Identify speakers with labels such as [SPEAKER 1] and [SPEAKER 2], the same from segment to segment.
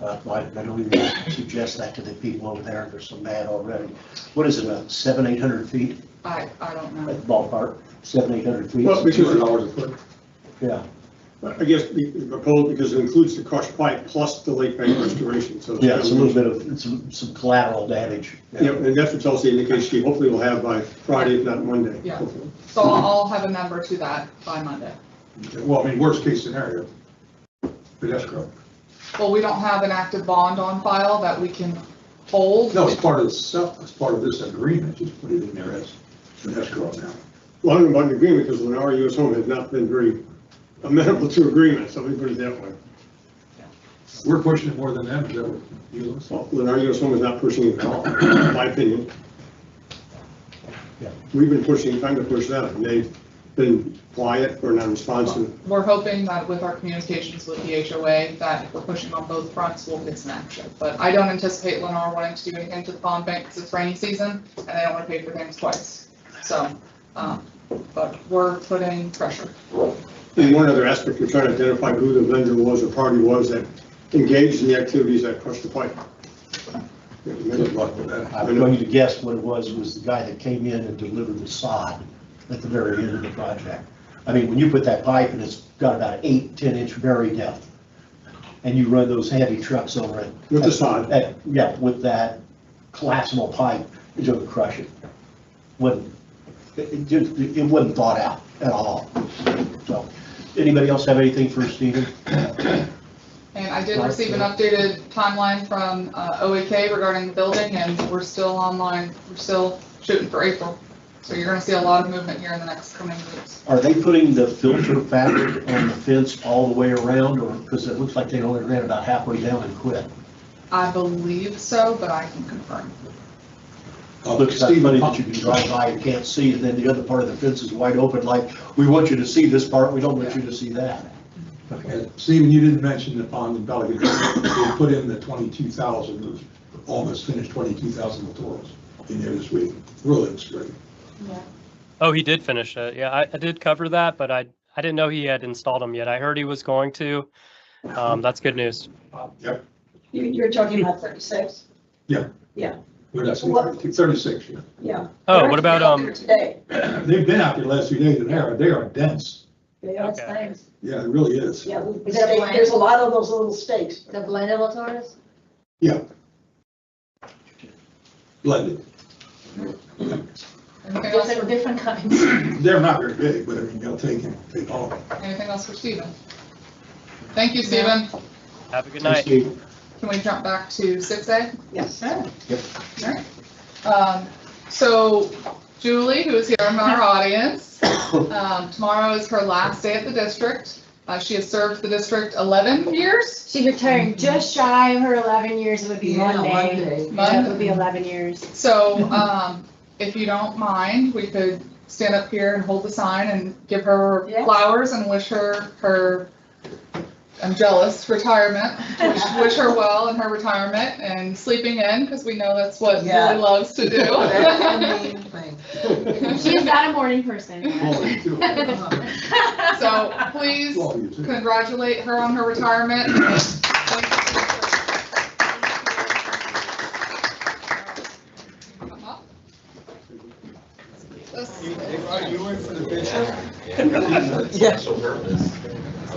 [SPEAKER 1] Uh, I I don't even suggest that to the people over there, they're so mad already. What is it, about seven, eight hundred feet
[SPEAKER 2] I, I don't
[SPEAKER 1] at
[SPEAKER 2] know.
[SPEAKER 1] the ballpark, seven, eight hundred feet?
[SPEAKER 3] Well, because dollars a foot.
[SPEAKER 1] Yeah,
[SPEAKER 3] I guess the the proposal, because it includes the crushed pipe plus the lake bank restoration, so.
[SPEAKER 1] yeah, it's a little bit of, it's some some collateral damage.
[SPEAKER 3] Yeah, and that's what Chelsea indicates she hopefully will have by Friday, if not Monday.
[SPEAKER 2] Yeah.
[SPEAKER 3] hopefully.
[SPEAKER 2] So I'll I'll have a number to that by Monday.
[SPEAKER 3] Well, I mean, worst case scenario, but that's correct.
[SPEAKER 2] Well, we don't have an active bond on file that we can hold.
[SPEAKER 4] No, it's part of the, sub- it's part of this agreement, just put it in there as an escrow now.
[SPEAKER 3] Well, I don't know about an agreement, because Lennar US Home has not been very amenable to agreements, let me put it that way.
[SPEAKER 4] We're pushing it more than them, is that what you listen?
[SPEAKER 3] Well, Lennar US Home is not pushing it at all, in my opinion.
[SPEAKER 1] Yeah.
[SPEAKER 3] We've been pushing, trying to push that, and they've been quiet or non-responsive.
[SPEAKER 2] We're hoping that with our communications with the HOA, that if we're pushing on both fronts, we'll get some action. But I don't anticipate Lennar wanting to do anything to the bond bank because it's rainy season and they don't want to pay for things twice. So, um, but we're putting pressure.
[SPEAKER 3] And one other aspect, we're trying to identify who the vendor was or party was that engaged in the activities that crushed the pipe.
[SPEAKER 4] Good luck with that.
[SPEAKER 1] I'm going to guess what it was, was the guy that came in and delivered the sod at the very end of the project. I mean, when you put that pipe and it's got about eight, 10-inch bury depth, and you run those heavy trucks over it.
[SPEAKER 3] With the sod.
[SPEAKER 1] that- Yeah, with that collapsible pipe, it's going to crush it. Wouldn't, it- it just, it wasn't thought out at all. So, anybody else have anything for Uh, Stephen?
[SPEAKER 2] And I did receive an updated timeline from uh, OAK regarding the building, and we're still online, we're still shooting for April. So you're gonna see a lot of movement here in the next coming weeks.
[SPEAKER 1] Are they putting the filter fabric on the fence all the way around, or, because it looks like they only ran about halfway down and quit?
[SPEAKER 2] I believe so, but I can confirm.
[SPEAKER 1] Looks like money that you can drive by and can't see, and then the other part of the fence is wide open, like, we want you to see this part, we don't want you to see that.
[SPEAKER 4] Okay, Stephen, you didn't mention the pond in Pelican, they put in the twenty-two thousand, those almost finished twenty-two thousand littorals in there this week, really looks great.
[SPEAKER 5] Oh, he did finish it. Yeah, I, I did cover that, but I, I didn't know he had installed them yet. I heard he was going to. Um, that's good news.
[SPEAKER 4] Yep,
[SPEAKER 6] You, you're talking about thirty-six?
[SPEAKER 4] we're not
[SPEAKER 6] What?
[SPEAKER 4] 32, thirty-six, yeah.
[SPEAKER 6] Yeah.
[SPEAKER 5] Oh,
[SPEAKER 6] They're
[SPEAKER 5] what about,
[SPEAKER 6] out there
[SPEAKER 5] um,
[SPEAKER 6] Today,
[SPEAKER 4] They've been out there the last few days, and they are, they are dense,
[SPEAKER 6] they are
[SPEAKER 5] Okay.
[SPEAKER 6] things,
[SPEAKER 4] yeah, it really is.
[SPEAKER 6] yeah, we-
[SPEAKER 7] Is that
[SPEAKER 6] stake-
[SPEAKER 7] blank?
[SPEAKER 6] there's a lot of those little stakes.
[SPEAKER 7] The blended Latours?
[SPEAKER 4] Blended,
[SPEAKER 2] Anything else,
[SPEAKER 7] Different, different kinds.
[SPEAKER 4] they're not very big, but I mean, they'll take, it- take all of them.
[SPEAKER 2] anything else for Stephen? Thank you, Stephen.
[SPEAKER 5] Have a good
[SPEAKER 1] Thanks,
[SPEAKER 5] night.
[SPEAKER 1] Steve.
[SPEAKER 2] Can we jump back to six A?
[SPEAKER 6] Yes.
[SPEAKER 1] Yep.
[SPEAKER 2] Alright. Um, So Julie, who is here in our audience, um, tomorrow is her last day at the district. Uh, She has served the district 11 years.
[SPEAKER 7] She retired just shy of her eleven years, it would be
[SPEAKER 6] Yeah,
[SPEAKER 7] Monday.
[SPEAKER 6] Monday.
[SPEAKER 7] That would be eleven years.
[SPEAKER 2] So um, if you don't mind, we could stand up here and hold the sign and give her
[SPEAKER 6] Yeah.
[SPEAKER 2] flowers and wish her her, I'm jealous, retirement. Wish wish her well in her retirement and sleeping in, because we know that's what
[SPEAKER 6] Yeah.
[SPEAKER 2] Julie loves to
[SPEAKER 6] That's
[SPEAKER 2] do.
[SPEAKER 6] the main thing.
[SPEAKER 7] She's not a morning person.
[SPEAKER 4] All of you, too.
[SPEAKER 2] So please
[SPEAKER 4] All of you, too.
[SPEAKER 2] congratulate her on her retirement.
[SPEAKER 4] You went for the picture?
[SPEAKER 6] Yeah.
[SPEAKER 8] Special purpose,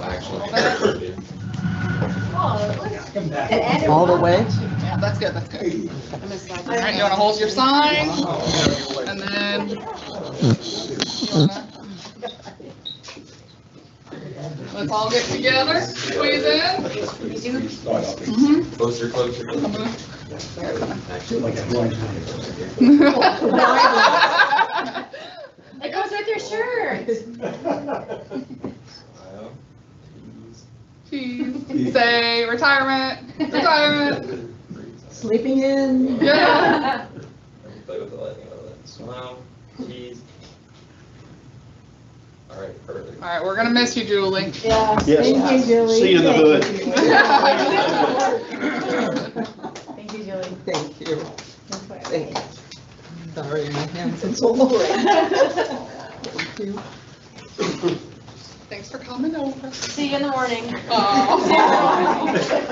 [SPEAKER 8] actually.
[SPEAKER 7] Oh,
[SPEAKER 4] Come back.
[SPEAKER 6] All the way?
[SPEAKER 2] Yeah, that's good, that's good. All right, you want to hold your sign and then. you wanna- Let's all get together, squeeze in. Mhm.
[SPEAKER 8] Closer, closer.
[SPEAKER 1] Like a blind man.
[SPEAKER 7] It goes with your shirt.
[SPEAKER 2] Cheese. Say retirement, retirement.
[SPEAKER 6] Sleeping in.
[SPEAKER 2] Yeah.
[SPEAKER 8] Play with the lighting a little bit. Smile, tease. All right, perfect.
[SPEAKER 2] All right, we're gonna miss you, Julie.
[SPEAKER 7] Yeah.
[SPEAKER 1] Yes.
[SPEAKER 7] Thank you, Julie.
[SPEAKER 1] See you in the hood.
[SPEAKER 7] Thank you, Julie.
[SPEAKER 9] Thank you. Thank you. Sorry, my hands are
[SPEAKER 6] So low.
[SPEAKER 2] Thanks for coming over.
[SPEAKER 7] See you in the morning.
[SPEAKER 2] Oh.